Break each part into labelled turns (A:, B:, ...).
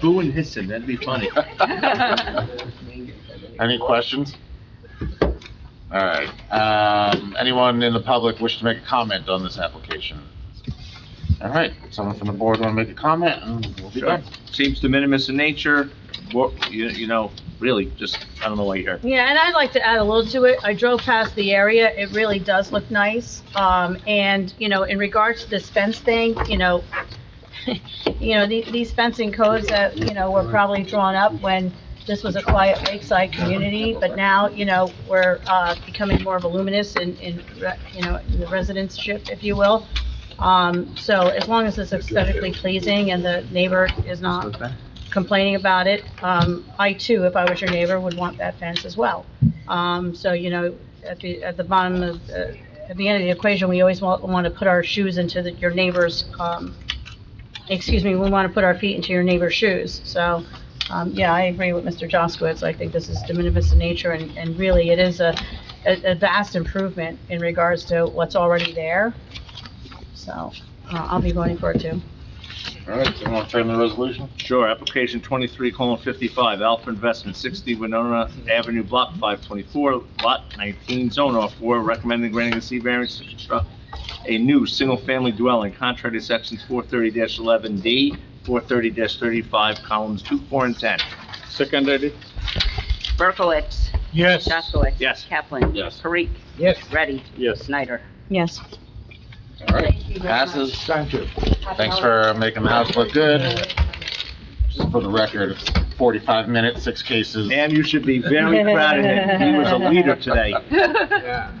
A: Boo and hissing, that'd be funny.
B: Any questions? All right, um, anyone in the public wish to make a comment on this application? All right, someone from the board want to make a comment, and we'll be
A: Sure.
B: done.
A: Seems de minimis in nature, wo- you, you know, really, just, I don't know why you're here.
C: Yeah, and I'd like to add a little to it. I drove past the area. It really does look nice. Um, and, you know, in regards to this fence thing, you know, you know, the- these fencing codes that, you know, were probably drawn up when this was a quiet lakeside community, but now, you know, we're, uh, becoming more voluminous in, in, re- you know, in the residentship, if you will. Um, so as long as it's aesthetically pleasing and the neighbor is not complaining about it. Um, I too, if I was your neighbor, would want that fence as well. Um, so, you know, at the, at the bottom of, uh, at the end of the equation, we always want, want to put our shoes into the, your neighbor's, um, excuse me, we want to put our feet into your neighbor's shoes. So, um, yeah, I agree with Mr. Jaskowitz. I think this is de minimis in nature and, and really it is a, a a vast improvement in regards to what's already there. So, uh, I'll be voting for it too.
B: All right, someone want to turn the resolution?
A: Sure, application twenty-three colon fifty-five, Alpha Investment, sixty Winona Avenue, block five twenty-four, lot nineteen, zone R four, recommending granting a C variance to construct a new single-family dwelling contrary to sections four thirty eleven D, four thirty thirty-five, columns two, four, and ten. Seconded.
D: Berkowitz.
E: Yes.
D: Jaskowitz.
A: Yes.
D: Kaplan.
B: Yes.
D: Parik.
E: Yes.
D: Ready.
A: Yes.
D: Snyder.
C: Yes.
B: All right, passes.
E: Thank you.
B: Thanks for making the house look good. Just for the record, it's 45 minutes, six cases.
A: And you should be very proud of him. He was a leader today.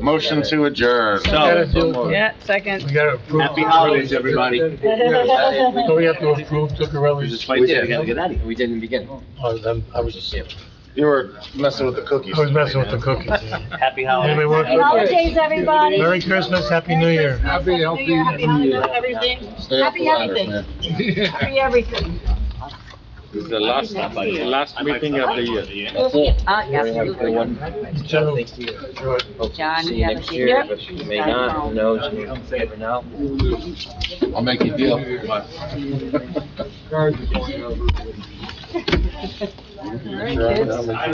B: Motion to adjourn.
A: So-
C: Yeah, second.
E: We gotta approve.
A: Happy holidays, everybody.
E: So we have to approve
A: We
E: Zuccarelli's,
A: just wait till we gotta get out of here.
F: We didn't begin.
E: oh, them- I was just,
B: You were messing with the cookies.
E: I was messing with the cookies.
F: Oh,
A: Happy
E: Anybody
A: holidays.
E: want-
C: Happy holidays, everybody.
E: Merry Christmas, Happy New Year.
C: Happy, healthy. Happy holidays, everything,
B: Stay up
C: Happy
B: for others,
C: everything.
B: man.
C: happy everything.
F: The last,
D: the
F: last meeting of the year.
B: That's it.
D: Ah, absolutely.
E: General,
F: Next year.
E: George,
D: John,
F: See
D: you
F: you
D: have a
F: next
D: good
F: year,
D: year.
F: but you may not, who knows, you never know.
B: I'll make you a deal.
C: All right, kids.